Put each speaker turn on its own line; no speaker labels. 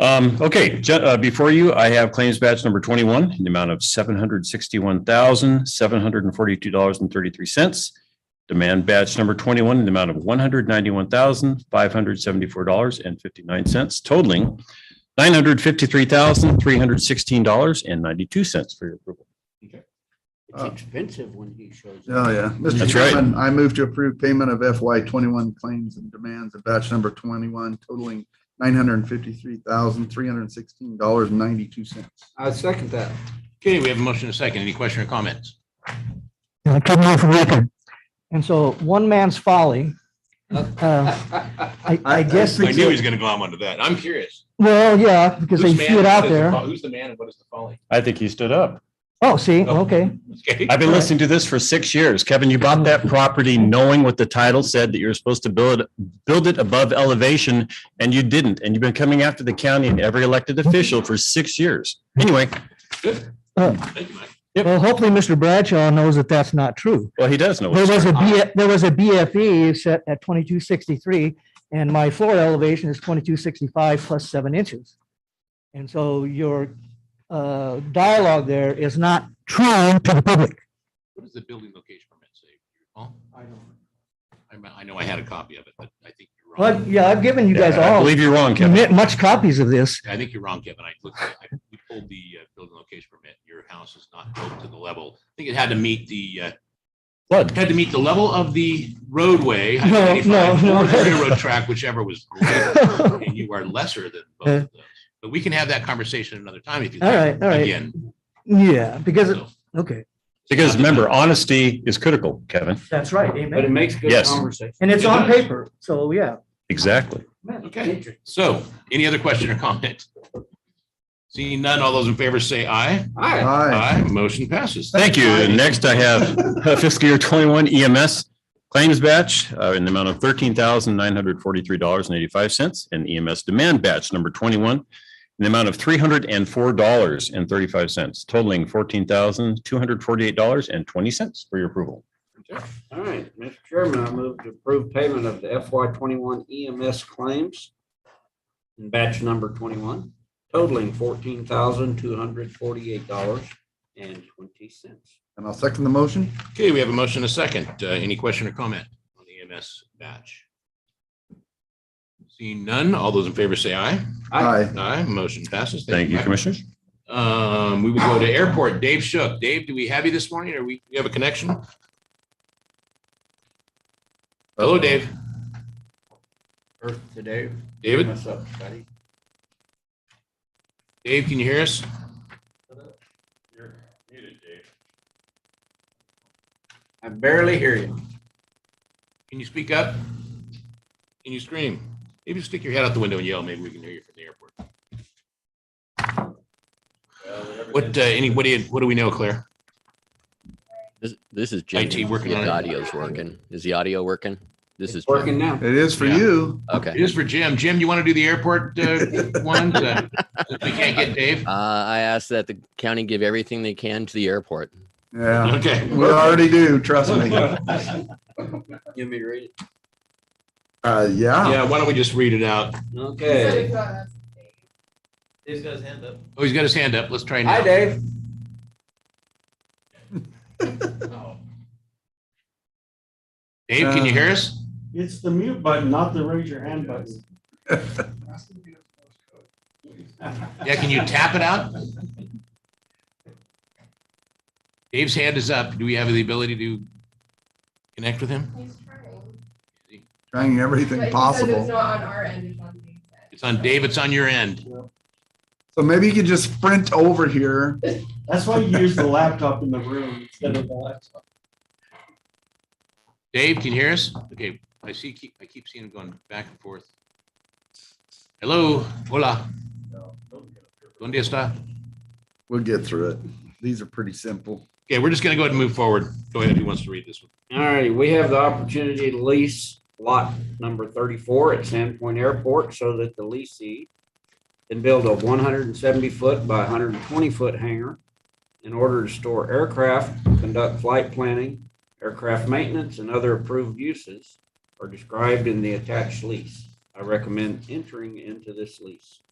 Um, okay, ju- uh, before you, I have claims batch number twenty-one in the amount of seven hundred sixty-one thousand, seven hundred and forty-two dollars and thirty-three cents. Demand batch number twenty-one in the amount of one hundred ninety-one thousand, five hundred seventy-four dollars and fifty-nine cents totaling nine hundred fifty-three thousand, three hundred sixteen dollars and ninety-two cents for your approval.
It's
Uh,
expensive when he shows up.
Oh, yeah. Mr.
That's right.
Chairman, I move to approve payment of FY twenty-one claims and demands of batch number twenty-one totaling nine hundred and fifty-three thousand, three hundred and sixteen dollars and ninety-two cents.
I second that.
Okay, we have a motion and a second. Any question or comments?
Yeah, Good move for record. And so one man's folly. uh, I, I guess,
I knew he
it's-
was going to go on to that. I'm curious.
well, yeah, because they
Whose
see
man
it out
and what is the
there.
fo- Who's the man and what is the folly?
I think he stood up.
Oh, see,
Oh.
okay.
Okay.
I've been listening to this for six years. Kevin, you bought that property knowing what the title said that you were supposed to build, it- build it above elevation and you didn't. And you've been coming after the county and every elected official for six years. Anyway,
Thank you, Mike.
Well, hopefully Mr. Bradshaw knows that that's not true.
well, he does know.
There
what-
was a B, there was a BFE set at twenty-two sixty-three and my floor elevation is twenty-two sixty-five plus seven inches. And so your, uh, dialogue there is not true to the public.
What does the building location permit say? Paul? I don't. I know I had a copy of it, but I think you're
Well, I've-
wrong.
yeah, I've given you guys
I
all
believe you're wrong, Kevin.
much copies of this.
I think you're wrong, Kevin. I looked, I- we pulled the uh, building location permit. Your house is not built to the level. I think it had to meet the, uh,
What?
had to meet the level of the roadway.
No, no,
95,
no.
Or the railroad track, whichever was greater. And you are lesser than both of those. But we can have that conversation another time if you.
All
like,
right, all right.
Again.
Yeah, because, it-
So-
okay.
Because remember, honesty is critical, Kevin.
That's right,
But it
amen.
makes good
Yes.
conversation.
And it's
it
on
does.
paper, so yeah.
Exactly.
Okay, so any other question or comment? Seeing none, all those in favor say aye.
All right.
Aye.
Motion passes.
Thank you. And Next, I have uh, fiscal year twenty-one EMS claims batch uh, in the amount of thirteen thousand nine hundred forty-three dollars and eighty-five cents and EMS demand batch number twenty-one in the amount of three hundred and four dollars and thirty-five cents totaling fourteen thousand two hundred forty-eight dollars and twenty cents for your approval.
All right, Mr. Chairman, I move to approve payment of the FY twenty-one EMS claims in batch number twenty-one totaling fourteen thousand two hundred forty-eight dollars and twenty cents.
And I'll second the motion.
Okay, we have a motion and a second. Uh, Any question or comment on the E EMS batch? Seeing none, all those in favor say aye.
Aye.
Aye, motion passes.
Thank you,
Mike.
Commissioners.
Um, we will go to airport. Dave Shook. Dave, do we have you this morning? Or we, you have a connection? Hello, Dave.
Earth today.
David?
What's up, buddy?
Dave, can you hear us?
I barely hear you.
Can you speak up? Can you scream? Maybe stick your head out the window and yell. Maybe we can hear you from the airport. What, uh, any, what do you, what do we know, Claire?
This, this is Jimmy.
IT working
If
on it.
The audio's working. Is the audio working? This is
It's
Jimmy.
working now.
It is for
Yeah.
you.
Okay.
It is for Jim. Jim, you want to do the airport, uh, one? Uh, If we can't get Dave?
Uh, I asked that the county give everything they can to the airport.
Yeah,
Okay.
we already do, trust me.
Give me read. it.
Uh, yeah.
Yeah, why don't we just read it out?
Okay.
Oh, he's got his hand up. Let's try
Hi,
now.
Dave.
Dave, can you hear us?
Uh,
It's the mute button, not the raise your hand button.
Yeah, can you tap it out? Dave's hand is up. Do we have the ability to connect with him?
He's trying.
Trying
But he
everything
says It's
possible.
not on our end, it's on the inside.
It's on Dave, it's on your end.
So maybe you could just sprint over here.
That's why you use the laptop in the room instead of the laptop.
Dave, can you hear us? Okay, I see, keep- I keep seeing him going back and forth. Hello, hola. ¿Dónde está?
We'll get through it. These are pretty simple.
Okay, we're just gonna go ahead and move forward. Go ahead, who wants to read this one?
All righty, we have the opportunity to lease lot number thirty-four at Sandpoint Airport so that the leasee can build a one hundred and seventy foot by hundred and twenty foot hangar in order to store aircraft, conduct flight planning, aircraft maintenance, and other approved uses are described in the attached lease. I recommend entering into this lease.